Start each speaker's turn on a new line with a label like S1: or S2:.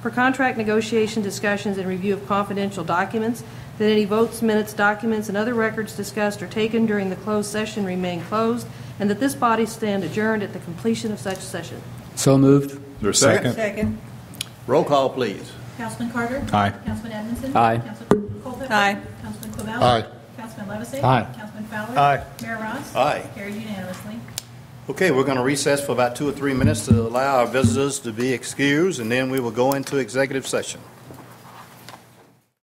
S1: for contract negotiation discussions and review of confidential documents, that any votes, minutes, documents, and other records discussed or taken during the closed session remain closed, and that this body stand adjourned at the completion of such session.
S2: So moved.
S3: Is there a second?
S4: Second.
S3: Roll call, please.
S5: Councilman Carter?
S3: Aye.
S5: Councilman Edmondson?
S2: Aye.
S5: Councilman Colvin?
S4: Aye.
S5: Councilman Clavell?
S3: Aye.
S5: Councilman Levisay?
S2: Aye.
S5: Councilman Fowler?
S3: Aye.
S5: Mayor Ross?
S3: Aye.
S5: Carried unanimously.
S3: Okay, we're going to recess for about two or three minutes to allow our visitors to be excused, and then we will go into executive session.